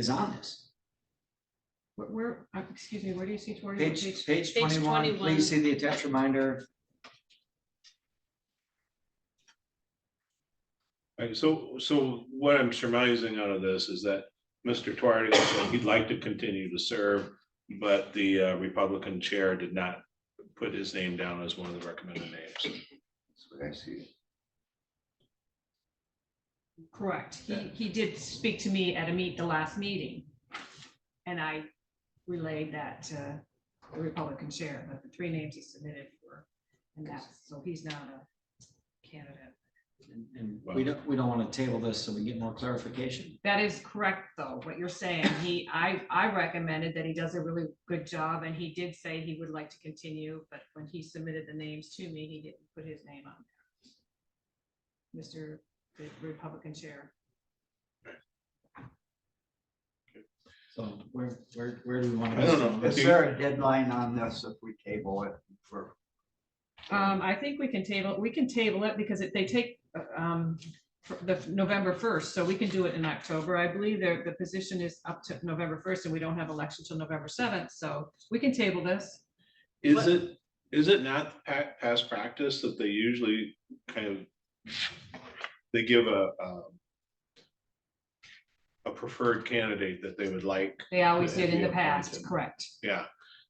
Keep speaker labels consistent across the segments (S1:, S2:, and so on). S1: is on this.
S2: Where- Where, uh, excuse me, where do you see Tori? What
S1: Mm-hmm. Page, page
S3: Page
S1: twenty-one,
S3: 21.
S1: please see the attached reminder.
S4: Right, so, so what I'm surmising out of this is that Mr. Tuareg said he'd like to continue to serve, but the uh, Republican chair did not put his name down as one of the recommended names.
S1: That's what I see.
S2: Correct. He, he did speak to me at a meet, the last meeting. And I relayed that to the Republican chair, but the three names he submitted were, and that's, so he's not a candidate.
S1: And- And we don't, we don't want to table this so we get more clarification.
S2: That is correct, though, what you're saying. He, I, I recommended that he does a really good job, and he did say he would like to continue, but when he submitted the names to me, he didn't put his name on there. Mr. the Republican Chair.
S1: So where, where, where do we want to?
S4: I don't know.
S5: Is there a deadline on this if we table it for?
S2: Um, I think we can table, we can table it because it, they take, uh, um, fr- the November first, so we can do it in October. I believe the, the position is up to November first, and we don't have election till November seventh, so we can table this.
S4: Is it, is it not pa- past practice that they usually kind of, they give a, um, a preferred candidate that they would like,
S2: They always did in the
S4: Yeah.
S2: past, correct?
S4: yeah,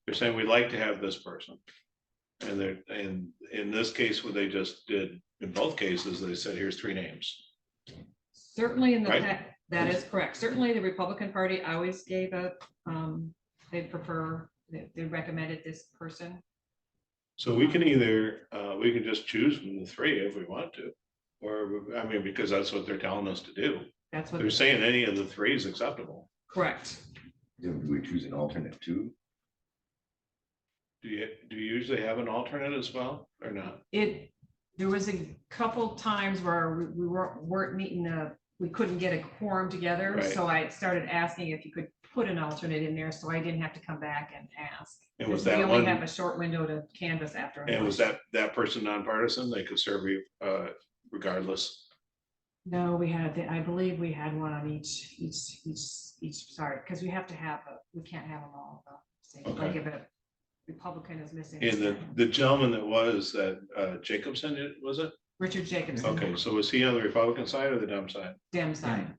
S4: they're saying we'd like to have this person. And they're, and in this case, what they just did, in both cases, they said, here's three names.
S2: Certainly in the,
S4: Right.
S2: pa- that is correct. Certainly the Republican Party always gave a, um, they prefer, they they recommended this person.
S4: So we can either, uh, we can just choose from the three if we want to. Or, I mean, because that's what they're telling us to do.
S2: That's what,
S4: They're saying any of the three is acceptable.
S2: correct.
S6: Do we choose an alternate too?
S4: Do you, do you usually have an alternate as well or not?
S2: It, there was a couple times where we- we weren't, weren't meeting the, we couldn't get a quorum together.
S4: Right.
S2: So I started asking if you could put an alternate in there, so I didn't have to come back and ask.
S4: And
S2: Because
S4: was that
S2: We only
S4: one,
S2: have a short window to canvas after. an
S4: and was
S2: election.
S4: that, that person nonpartisan? They could serve you, uh, regardless.
S2: No, we had, the- I believe we had one on each, each, each, each, sorry, because we have to have, a- we can't have them all. at the same- Like
S4: Okay.
S2: if a Republican is missing.
S4: And the, the gentleman that was, that, uh, Jacobson, it- was it?
S2: Richard Jacobson.
S4: Okay, so was he on the Republican side or the Dem side?
S2: Dem side.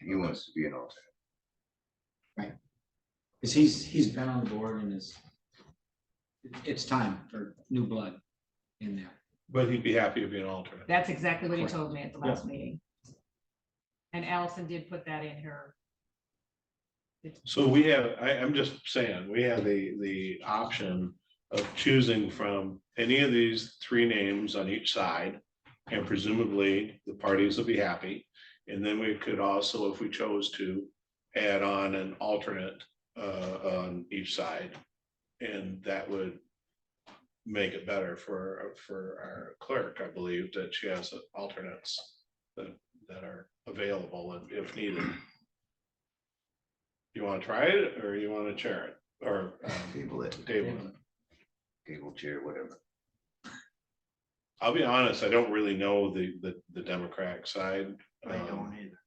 S6: He wants to be an alternate.
S1: Because he's, he's been on the board and is, it's time for new blood in there.
S4: But he'd be happy to be an alternate.
S2: That's exactly what he
S1: Correct.
S2: told me at the last meeting. And Allison did put that in her.
S4: So we have, I, I'm just saying, we have the, the option of choosing from any of these three names on each side. And presumably the parties will be happy. And then we could also, if we chose to, add on an alternate uh, on each side. And that would make it better for, for our clerk, I believe, that she has alternates that, that are available if- if needed. You want to try it or you want to chair it or um,
S6: Table it,
S4: table it?
S6: table chair, whatever.
S4: I'll be honest, I don't really know the, the, the Democratic side.
S5: I
S4: Um,
S5: don't either.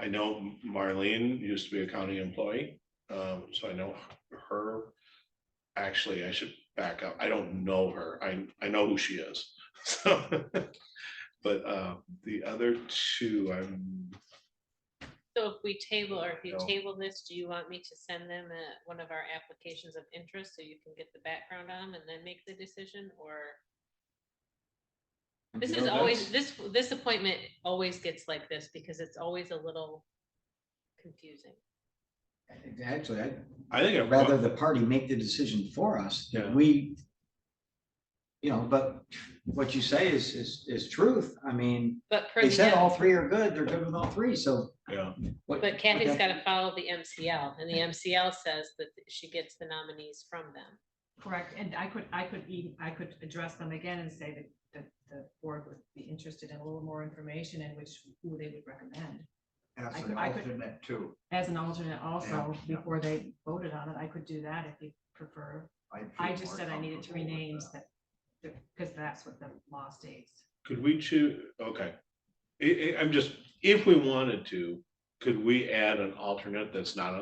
S4: I know Marlene used to be a county employee, um, so I know her. Actually, I should back up. I don't know her. I, I know who she is. So, But, uh, the other two, I'm,
S3: So if we table, or if you
S4: No.
S3: table this, do you want me to send them a, one of our applications of interest so you can get the background on 'em and then make the decision, or? This
S4: No,
S3: is always,
S4: that's-
S3: this, this appointment always gets like this because it's always a little confusing.
S1: Actually, I'd
S4: I think. I've-
S1: rather the party make the decision for us, that
S4: Yeah.
S1: we, you know, but what you say is, is, is truth. I mean,
S3: But per
S1: they said all
S3: the,
S1: three are good, they're good with all three, so.
S4: Yeah,
S1: what-
S3: but Kathy's
S1: okay.
S3: gotta follow the MCL, and the MCL says that she gets the nominees from them.
S2: Correct, and I could, I could, e- I could address them again and say that, that the board would be interested in a little more information and which, who they would recommend.
S5: As
S2: I
S5: an
S2: could- I could-
S5: alternate too.
S2: As an alternate also,
S5: Yeah.
S2: before they voted on it, I could do that if you prefer.
S5: I'd
S2: I
S5: feel
S2: just
S5: more
S2: said I needed three
S5: comfortable with
S2: names
S5: that.
S2: that, because that's what the law states.
S4: could we choose, okay. I, I, I'm just, if we wanted to, could we add an alternate that's not